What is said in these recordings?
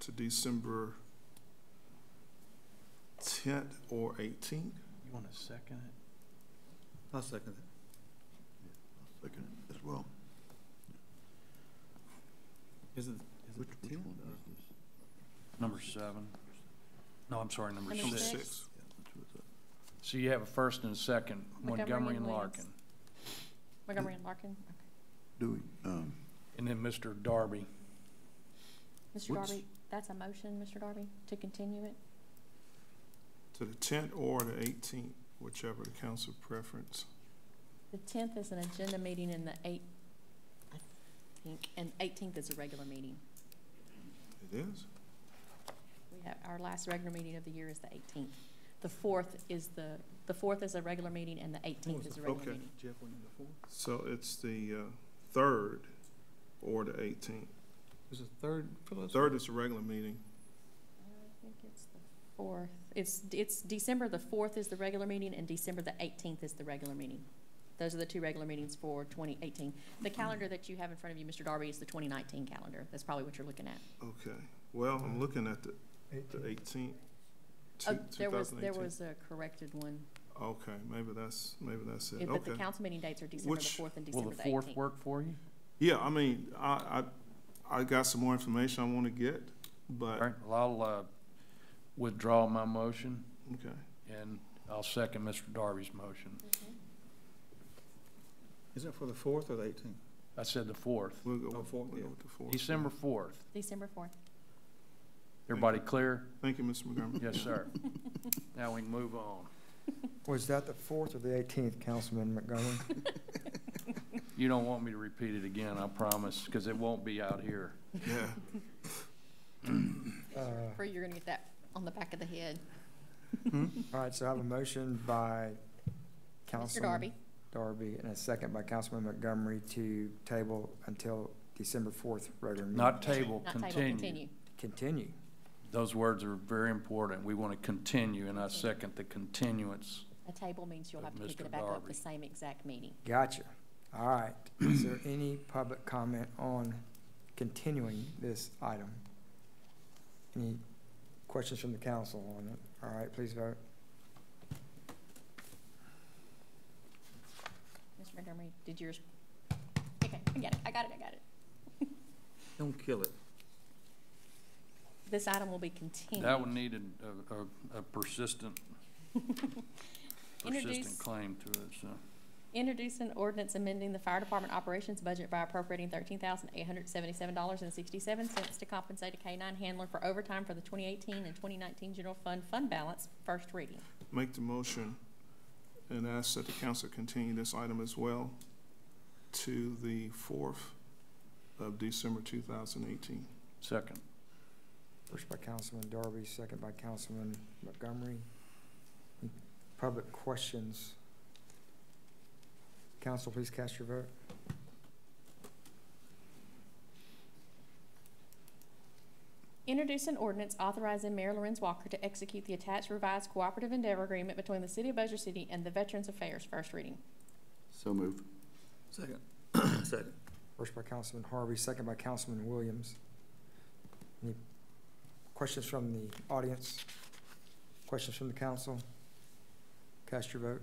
to December tenth or eighteenth. You want to second it? I'll second it. Second as well. Is it, is Which- it the which 10th? one is Number seven? No, I'm sorry, number Number six. six. So you have a first and a second, Montgomery and Montgomery and Williams. Larkin. Montgomery and Larkin, Do we, um, And then Mr. Darby. okay. Mr. What's- Darby, that's a motion, Mr. Darby, to continue it? To the tenth or the eighteenth, whichever the council preference. The tenth is an agenda meeting and the eight, I think, and eighteenth is a regular meeting. It is? We have, our last regular meeting of the year is the eighteenth. The fourth is the, the fourth is a regular meeting and the eighteenth is a regular Okay. meeting. Jeff, one number four? So it's the, uh, third or the eighteenth. Is it third? Phyllis? Third is a regular meeting. I think it's the Fourth, it's, it's December the fourth is the regular meeting and December the eighteenth is the regular meeting. Those are the two regular meetings for twenty eighteen. The calendar that you have in front of you, Mr. Darby, is the twenty nineteen calendar. That's probably what you're looking at. Okay. Well, I'm looking at the, the eighteenth, Oh, two, two there was, thousand there eighteen. was a corrected one. Okay, maybe that's, maybe that's Yeah, it. But Okay. the council meeting dates are December the Which- fourth and Will December the the fourth eighteenth. work for you? Yeah, I mean, I, I, I got some more information I wanna get, All but, right, well, I'll uh, withdraw my motion, okay. and I'll second Mr. Darby's motion. Is it for the fourth or the eighteenth? I said the fourth, We'll go, Oh, with- we'll fourth, go yeah. with the fourth. December fourth. December fourth. Everybody clear? Thank you, Mr. Montgomery. Yes, sir. Now we can move on. Was that the fourth or the eighteenth, Councilman Montgomery? You don't want me to repeat it again, I promise, because it won't be out here. Yeah. Uh, Free, you're gonna get that on the back of the head. All right, so I have a motion by Mr. Councilman Darby, Darby and a second by Councilman Montgomery to table until December fourth regular meeting. Not table, not table, continue. continue. Continue. Those words are very important. We want to continue, and I second the continuance. A table means you'll Of have to pick Mr. it back up Darby. the same exact meeting. Gotcha. All right. Is there any public comment on continuing this item? Any questions from the council on it? All right, please vote. Mr. Montgomery, did yours? Okay, I got it, I got it, I got it. Don't kill it. This item will be continued. That would need a- a, a persistent, Introduce- persistent claim to it, so. Introduce an ordinance amending the fire department operations budget by appropriating thirteen thousand eight hundred seventy-seven dollars and sixty-seven cents to compensate a K nine handler for overtime for the twenty eighteen and twenty nineteen general fund fund balance, first reading. Make the motion and ask that the council continue this item as well to the fourth of December two thousand eighteen. Second. First by Councilman Darby, second by Councilman Montgomery. Any Public questions? Council, please cast your vote. Introduce an ordinance authorizing Mayor Lorenz Walker to execute the attached revised cooperative endeavor agreement between the City of Bossier City and the Veterans Affairs, first reading. So move. Second. Second. First by Councilman Harvey, second by Councilman Williams. Any questions from the audience? Questions from the council? Cast your vote.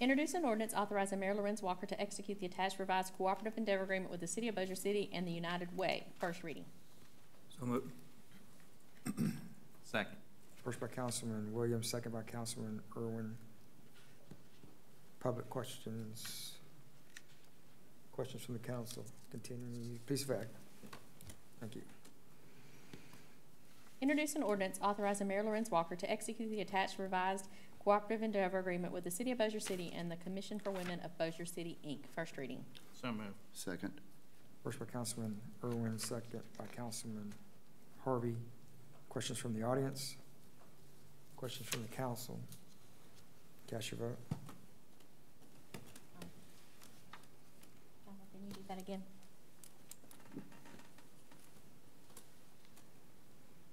Introduce an ordinance authorizing Mayor Lorenz Walker to execute the attached revised cooperative endeavor agreement with the City of Bossier City and the United Way, first reading. So move. Second. First by Councilman Williams, second by Councilman Irwin. Public questions? Questions from the council? Continue, please vote. Thank you. Introduce an ordinance authorizing Mayor Lorenz Walker to execute the attached revised cooperative endeavor agreement with the City of Bossier City and the Commission for Women of Bossier City, Inc., first reading. So moved. Second. First by Councilman Irwin, second by Councilman Harvey. Questions from the audience? Questions from the council? Cast your vote. Can you do that again?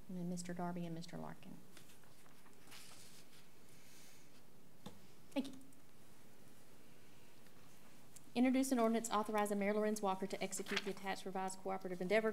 And then Mr. Darby and Mr. Larkin. Thank you. Introduce an ordinance authorizing Mayor Lorenz Walker to execute the attached revised cooperative endeavor